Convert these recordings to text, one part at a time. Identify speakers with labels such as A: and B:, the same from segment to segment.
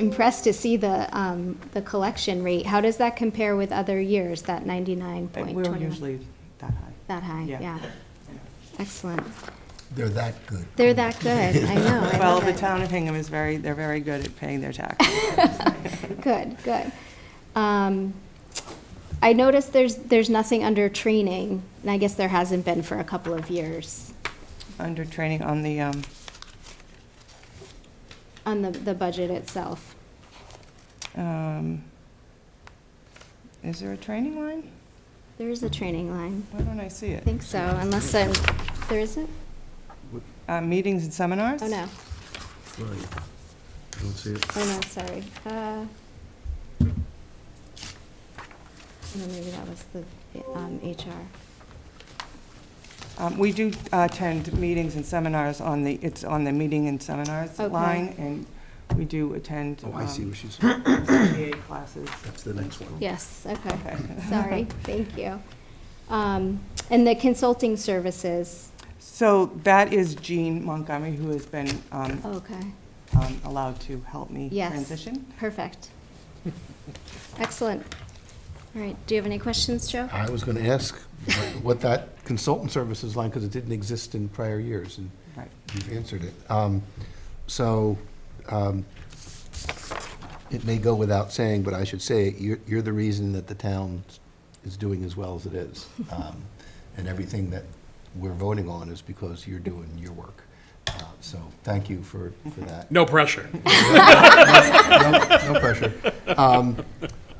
A: impressed to see the, um, the collection rate. How does that compare with other years, that ninety-nine
B: And
A: point
B: We're
A: twenty-one?
B: usually that high.
A: That high,
B: Yeah.
A: yeah. Excellent.
C: They're that good.
A: They're that good, I know. Oh, I
B: Well,
A: love
B: the
A: it.
B: town of Hingham is very, they're very good at paying their taxes.
A: Good, good. Um, I noticed there's, there's nothing under training, and I guess there hasn't been for a couple of years
B: Under training on the, um,
A: on the, the budget itself.
B: um, is there a training line?
A: There is a training line.
B: Why don't I see
A: I
B: it?
A: think so, unless I, there isn't?
B: Uh, Meetings and seminars?
A: Oh, no.
C: Right. Don't see it.
A: Oh, no, sorry. Uh, No, maybe that was the um, HR.
B: Um, We do uh, attend meetings and seminars on the, it's on the meeting and seminars
A: Okay.
B: line, and we do attend.
C: Oh, I see
B: um,
C: what she's, saying.
B: CPA classes.
C: that's the next one.
A: Yes, okay.
B: Okay.
A: Sorry, thank you. Um, And the consulting services,
B: So that is Jean Montgomery, who has been um,
A: okay,
B: um, allowed to help me
A: Yes.
B: transition.
A: perfect. Excellent. All right, do you have any questions, Joe?
C: I was going to ask what- what that consultant services line, because it didn't exist in prior years, and
B: Right.
C: you've answered it. Um, So, um, it may go without saying, but I should say, it, you're, you're the reason that the town is doing as well as it is. Um, And everything that we're voting on is because you're doing your work. Uh, So, thank you for, for that.
D: No pressure.
C: no, no pressure. Um,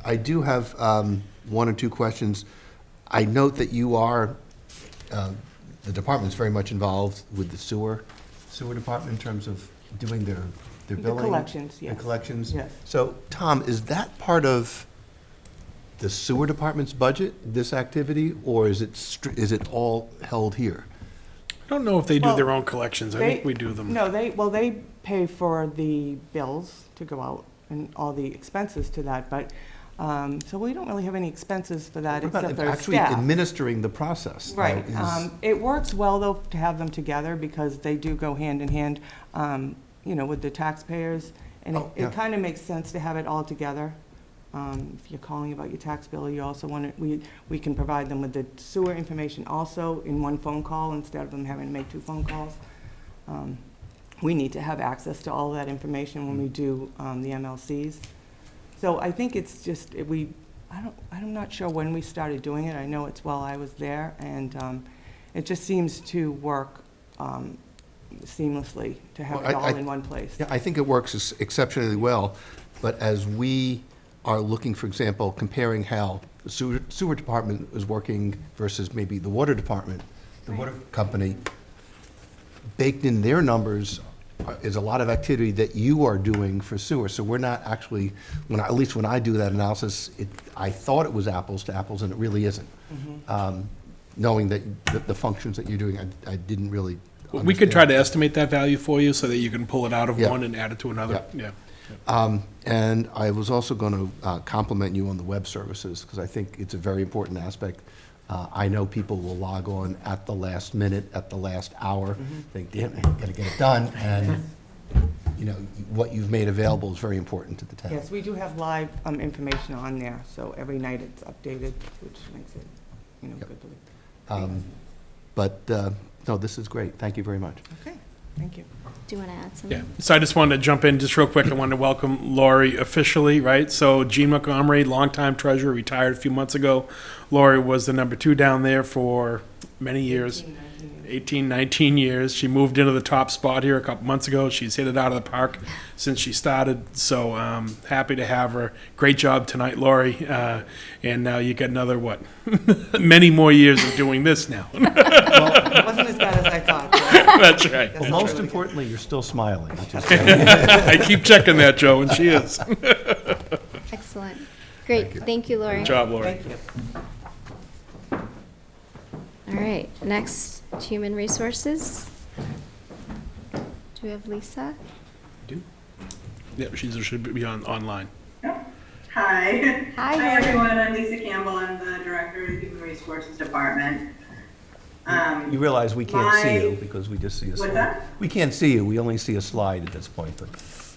C: I do have um, one or two questions. I note that you are, uh, the department's very much involved with the sewer, sewer department in terms of doing their, their
B: The
C: billing.
B: collections, yes.
C: The collections.
B: Yes.
C: So, Tom, is that part of the sewer department's budget, this activity, or is it, str- is it all held here?
D: I don't know if they do their
B: Well,
D: own collections. I
B: They-
D: think we do them.
B: No, they, well, they pay for the bills to go out and all the expenses to that, but, um, so we don't really have any expenses for that
C: What about
B: except for
C: Actually
B: staff.
C: administering the process. though,
B: Right.
C: is-
B: Um, It works well, though, to have them together because they do go hand in hand, um, you know, with the taxpayers. And it-
C: Oh, yeah.
B: it kind of makes sense to have it all together. Um, If you're calling about your tax bill, you also want to, we, we can provide them with the sewer information also in one phone call instead of them having to make two phone calls. Um, We need to have access to all that information when we
C: Mm.
B: do um, the MLCs. So I think it's just, it- we, I don't, I'm not sure when we started doing it. I know it's while I was there, and um, it just seems to work um, seamlessly to have
C: Well,
B: it
C: I-
B: all
C: I-
B: in one place.
C: Yeah, I think it works ex- exceptionally well, but as we are looking, for example, comparing how the sewer, sewer department is working versus maybe the water department, the water company, baked in their numbers are- is a lot of activity that you are doing for sewer. So we're not actually, when, I- at least when I do that analysis, it, I thought it was apples to apples, and it really isn't. Um, Knowing that, that the functions that you're doing, I, I didn't really
D: Well, We could try
C: understand.
D: to estimate that value for you so that you can pull it out of
C: Yeah.
D: one and add it to another. Yeah.
C: Um, And I was also going to compliment you on the web services, because I think it's a very important aspect. Uh, I know people will log on at the last minute, at the last hour, think, damn, I gotta get it done, and, you know, what you've made available is very important to the town.
B: Yes, we do have live um, information on there, so every night it's updated, which makes it, you know,
C: Yep.
B: good. for the-
C: Um, But, uh, no, this is great, thank you very much.
B: Okay, thank you.
A: Do you want to add something?
D: Yeah. So I just wanted to jump in just real quick. I wanted to welcome Lori officially, right? So Gene Montgomery, longtime treasurer, retired a few months ago. Lori was the number two down there for many years. 18, 19 years. She moved into the top spot here a couple months ago. She's hit it out of the park since she started. So um, happy to have her. Great job tonight, Lori. Uh, and now you got another, what, many more years of doing this now.
B: It wasn't as bad as I thought. but
D: That's right.
B: that's really
C: Most
B: good.
C: importantly, you're still smiling, which is
D: I keep checking that, Joe, and she is.
A: Excellent. Great, thank you, Lori.
D: Good job, Lori.
B: Thank you.
A: All right, next, human resources. Do we have Lisa?
D: Yep, she should be on online.
E: Hi.
A: Hi, how are
E: Hi,
A: you?
E: everyone. I'm Lisa Campbell. I'm the Director of the Human Resources Department. Um,
C: You realize we can't see you,
E: My-
C: because we just see a
E: What's
C: slide.
E: that?
C: We can't see you, we only see a slide at this point, but